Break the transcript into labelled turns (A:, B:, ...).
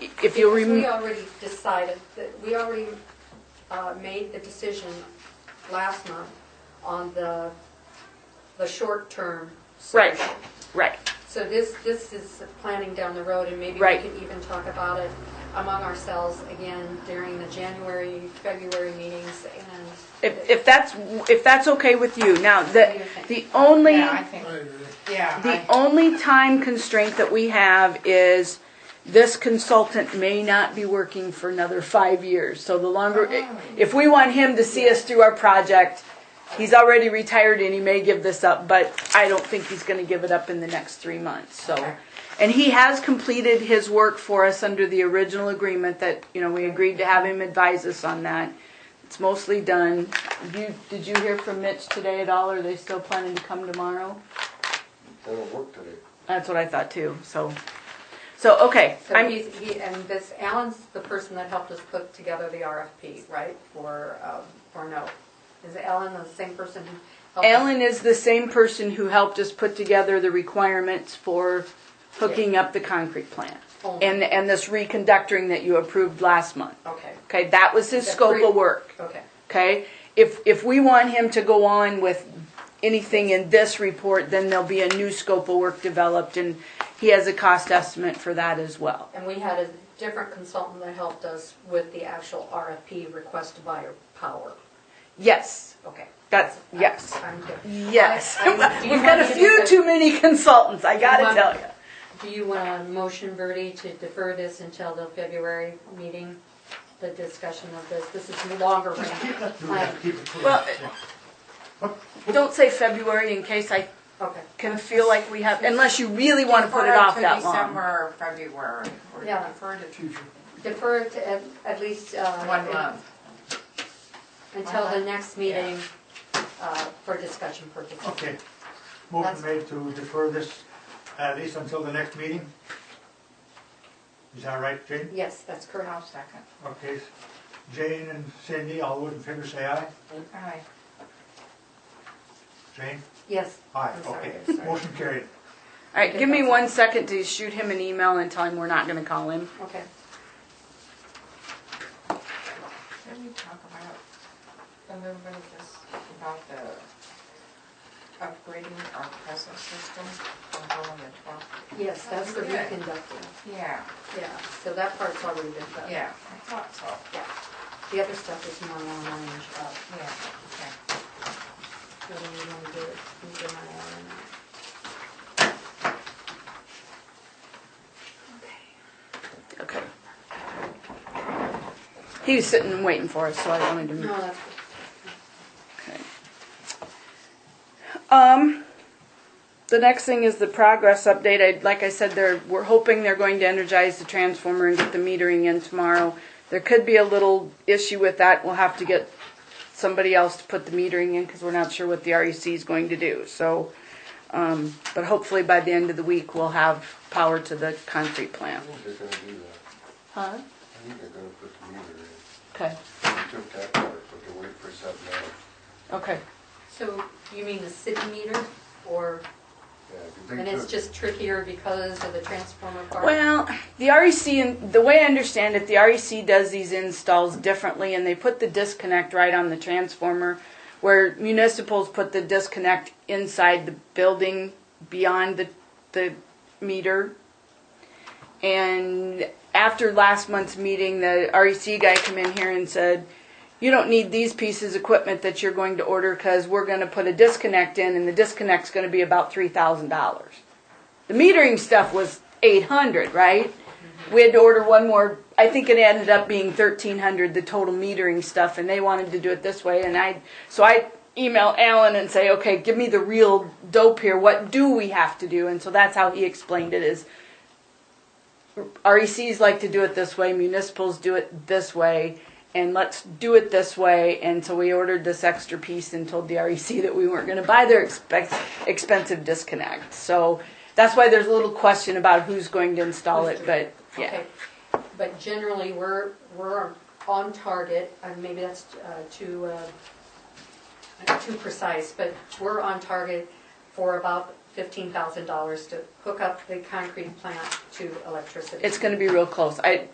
A: if you
B: Because we
A: rem,
B: already decided, that we already uh, made the decision last month on the, the short-term
A: Right.
B: solution.
A: right,
B: So this, this is planning down the road, and maybe we
A: Right.
B: can even talk about it among ourselves again during the January, February meetings, and
A: if, if that's, if that's okay with you. Now, the, the only.
C: Yeah, I think, yeah.
A: The
C: I-
A: only time constraint that we have is this consultant may not be working for another five years. So the longer,
C: Oh.
A: if we want him to see us through our project, he's already retired and he may give this up, but I don't think he's gonna give it up in the next three months, so.
C: Okay.
A: And he has completed his work for us under the original agreement that, you know, we agreed to have him advise us on that. It's mostly done. You, did you hear from Mitch today at all? Are they still planning to come tomorrow?
D: That'll work today.
A: That's what I thought too. So, so okay.
B: so
A: I'm
B: he's, he, and this, Alan's the person that helped us put together the RFP, right, for, um, for no? Is Alan the same person who helped? us?
A: Alan is the same person who helped us put together the requirements for hooking up the concrete plant
B: Oh.
A: and and this reconductoring that you approved last month.
B: Okay,
A: Okay, that was his
B: The
A: scope
B: pre-
A: of work.
B: okay.
A: Okay, if, if we want him to go on with anything in this report, then there'll be a new scope of work developed and he has a cost estimate for that as well.
B: And we had a different consultant that helped us with the actual RFP request to buy power.
A: Yes,
B: Okay.
A: that's, yes.
B: I'm good.
A: Yes.
B: I- I- do you
A: We've got a
B: want me to
A: few
B: do-
A: too many consultants, I gotta
B: want-
A: tell you.
B: Do you want a motion, Verdi, to defer this until the February meeting, the discussion of this? This is longer range. plan.
A: Well, don't say February in case I
B: Okay,
A: can feel like we have, unless you really wanna put it off that
C: Defer it to
A: long.
C: December or February. or
B: Yeah.
C: Defer it to
B: defer it to at, at least, uh.
C: one month.
B: Until the next meeting, uh, for discussion purposes.
E: Okay, motion made to defer this at least until the next meeting? Is that right, Jane?
B: Yes, that's correct.
C: I'll second.
E: Okay, Jane and Cindy, all those in favor say aye.
C: Aye.
E: Jane?
B: Yes.
E: Aye,
B: I'm sorry,
E: okay.
B: I'm sorry.
E: Motion carried.
A: Alright, give me one second to shoot him an email and tell him we're not gonna call him.
B: Okay.
C: Can we talk about, a little bit of this, about the upgrading our present system on going to twelve?
B: Yes, that's the
C: Okay.
B: reconducting.
C: Yeah,
B: Yeah, so that part's already been done.
C: yeah, I thought so,
B: The other stuff is more long range, uh,
C: yeah, okay.
B: whether we want to do it, we do not.
A: Okay. He was sitting and waiting for us, so I wanted to.
B: No, that's,
A: Um, the next thing is the progress update. I, like I said, they're, we're hoping they're going to energize the transformer and get the metering in tomorrow. There could be a little issue with that. We'll have to get somebody else to put the metering in because we're not sure what the REC is going to do. So, um, but hopefully by the end of the week, we'll have power to the concrete
D: I
A: plant.
D: think they're gonna do that.
A: Huh?
D: I think they're gonna put the meter in.
A: Okay,
D: They took that part, but they're waiting for something else.
A: okay.
B: so you mean the city meter or,
D: Yeah, 'cause they
B: and it's
D: took-
B: just trickier because of the transformer part?
A: Well, the REC, and the way I understand it, the REC does these installs differently, and they put the disconnect right on the transformer, where municipals put the disconnect inside the building beyond the, the meter. And after last month's meeting, the REC guy came in here and said, you don't need these pieces of equipment that you're going to order because we're going to put a disconnect in, and the disconnect's going to be about three thousand dollars. The metering stuff was eight hundred, right? We had to order one more. I think it ended up being thirteen hundred, the total metering stuff, and they wanted to do it this way. And I, so I email Alan and say, okay, give me the real dope here. What do we have to do? And so that's how he explained it: is RECs E like to do it this way, municipals do it this way, and let's do it this way. And so we ordered this extra piece and told the REC that we weren't going to buy their expense, expensive disconnect. So that's why there's a little question about who's going to install it, but yeah.
B: Okay, But generally, we're, we're on target, and maybe that's uh, too, uh, too precise, but we're on target for about fifteen thousand dollars to hook up the concrete plant to electricity.
A: It's going to be real close. I